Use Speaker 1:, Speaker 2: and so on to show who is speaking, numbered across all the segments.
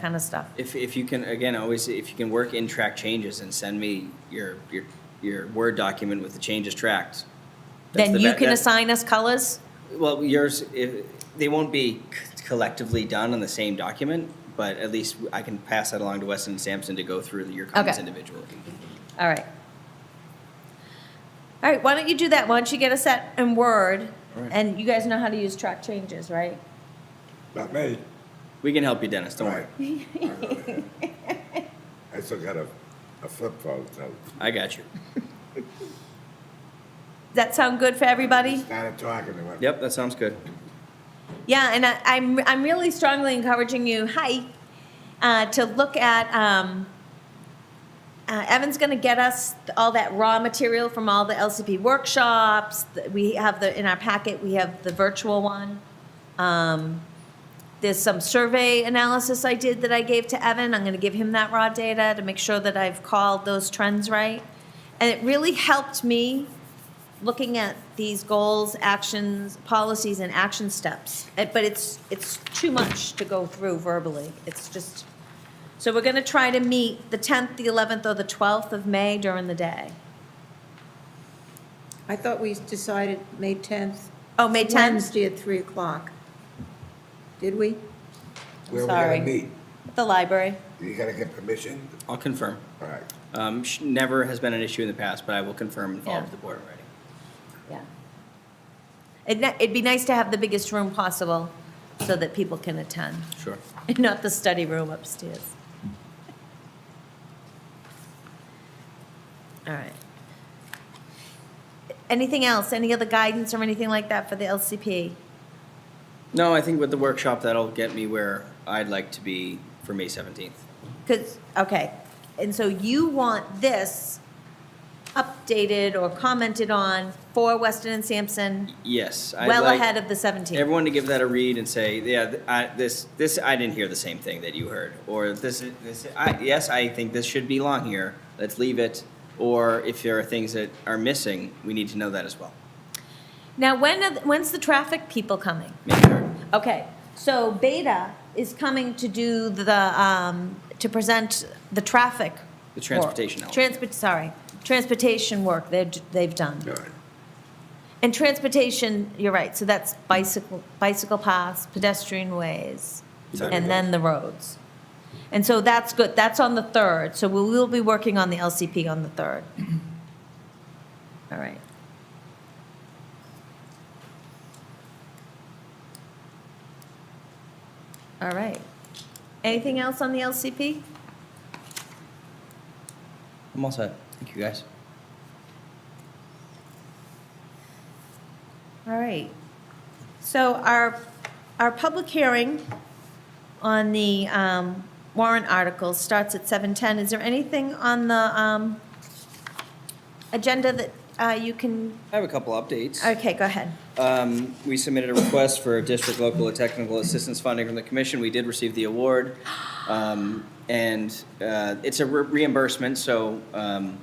Speaker 1: kind of stuff.
Speaker 2: If, if you can, again, always, if you can work in track changes and send me your, your, your Word document with the changes tracked. that's
Speaker 1: Then
Speaker 2: the
Speaker 1: you
Speaker 2: be-
Speaker 1: can
Speaker 2: that's-
Speaker 1: assign us colors?
Speaker 2: Well, yours, if, they won't be c- collectively done on the same document, but at least I can pass that along to Weston and Sampson to go through your comments
Speaker 1: Okay.
Speaker 2: individually.
Speaker 1: All right. All right, why don't you do that? Why don't you get us that in Word?
Speaker 2: All right.
Speaker 1: And you guys know how to use track changes, right?
Speaker 3: Not me.
Speaker 2: We can help you, Dennis, don't worry.
Speaker 3: Right. I still got a, a flip phone, so.
Speaker 2: I got you.
Speaker 1: Does that sound good for everybody?
Speaker 3: Started talking to him.
Speaker 2: Yep, that sounds good.
Speaker 1: Yeah, and I, I'm, I'm really strongly encouraging you, hi, uh, to look at, um, uh, Evan's gonna get us all that raw material from all the LCP workshops. that We have the, in our packet, we have the virtual one. Um, there's some survey analysis I did that I gave to Evan. I'm gonna give him that raw data to make sure that I've called those trends right. And it really helped me looking at these goals, actions, policies, and action steps. Uh, But it's, it's too much to go through verbally. It's just, so we're gonna try to meet the tenth, the eleventh, or the twelfth of May during the day.
Speaker 4: I thought we decided May 10th.
Speaker 1: Oh, May tenth,
Speaker 4: Wednesday at 3 o'clock. Did we?
Speaker 3: Where we
Speaker 1: Sorry.
Speaker 3: gotta meet?
Speaker 1: the library.
Speaker 3: You gotta get permission?
Speaker 2: I'll confirm.
Speaker 3: All right.
Speaker 2: Um, sh- never has been an issue in the past, but I will confirm and follow up
Speaker 1: Yeah.
Speaker 2: with the board already.
Speaker 1: Yeah. It'd, ni- it'd be nice to have the biggest room possible so that people can attend,
Speaker 2: Sure.
Speaker 1: and not the study room upstairs. All right. Anything else? Any other guidance or anything like that for the LCP?
Speaker 2: No, I think with the workshop, that'll get me where I'd like to be for May 17th.
Speaker 1: Because, okay, and so you want this updated or commented on for Weston and Sampson
Speaker 2: Yes. I'd
Speaker 1: well
Speaker 2: like
Speaker 1: ahead of the 17th?
Speaker 2: Everyone to give that a read and say, yeah, th- I, this, this, I didn't hear the same thing that you heard. Or this, is- this, I, yes, I think this should be long here. Let's leave it. Or if there are things that are missing, we need to know that as well.
Speaker 1: Now, when, are th- when's the traffic people coming?
Speaker 2: Make sure.
Speaker 1: Okay, so Beta is coming to do the, um, to present the traffic.
Speaker 2: The
Speaker 1: work.
Speaker 2: transportation element.
Speaker 1: Transport, sorry, transportation work they've, they've done.
Speaker 3: All right.
Speaker 1: And transportation, you're right, so that's bicycle, bicycle paths, pedestrian ways,
Speaker 2: Sorry.
Speaker 1: and then the roads. And so that's good, that's on the 3rd, so we will be working on the LCP on the 3rd. All right. All right. Anything else on the LCP?
Speaker 2: I'm all set. Thank you, guys.
Speaker 1: All right. So our, our public hearing on the um, warrant articles starts at 7:10. Is there anything on the um, agenda that uh, you can,
Speaker 2: I have a couple updates.
Speaker 1: okay, go ahead.
Speaker 2: Um, we submitted a request for district local and technical assistance funding from the commission. We did receive the award. Um, and, uh, it's a re- reimbursement, so, um,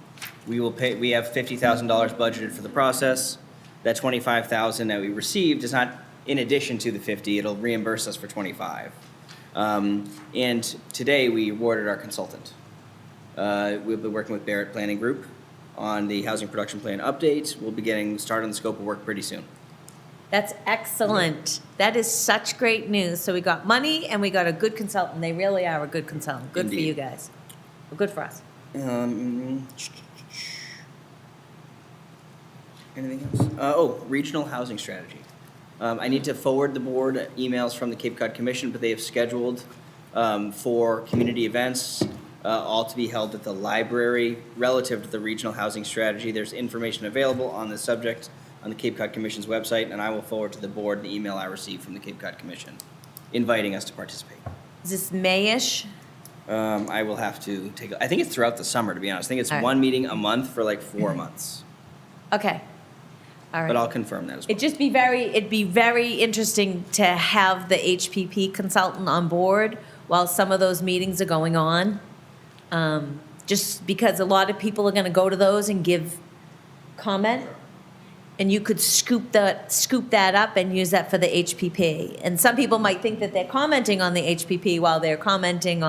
Speaker 2: we will pay, we have fifty thousand dollars budgeted for the process. That twenty-five thousand that we received is not in addition to the fifty, it'll reimburse us for twenty-five. Um, and today we awarded our consultant. Uh, We'll be working with Barrett Planning Group on the housing production plan updates. We'll be getting started on the scope of work pretty soon.
Speaker 1: That's excellent. That is such great news. So we got money and we got a good consultant. They really are a good consultant. Good for
Speaker 2: Indeed.
Speaker 1: you guys. Good for us.
Speaker 2: Um, anything else? Uh, oh, regional housing strategy. Um, I need to forward the board emails from the Cape Cod Commission, but they have scheduled um, for community events, uh, all to be held at the library relative to the regional housing strategy. There's information available on the subject on the Cape Cod Commission's website, and I will forward to the board the email I received from the Cape Cod Commission inviting us to participate.
Speaker 1: Is this Mayish?
Speaker 2: Um, I will have to take. a- I think it's throughout the summer, to be honest. I think it's
Speaker 1: All right.
Speaker 2: one meeting a month for like four months,
Speaker 1: Okay. All right.
Speaker 2: but I'll confirm that as well.
Speaker 1: It'd just be very, it'd be very interesting to have the HPP consultant on board while some of those meetings are going on. Um, Just because a lot of people are gonna go to those and give comment. And you could scoop that, scoop that up and use that for the HPP. And some people might think that they're commenting on the HPP while they're commenting on.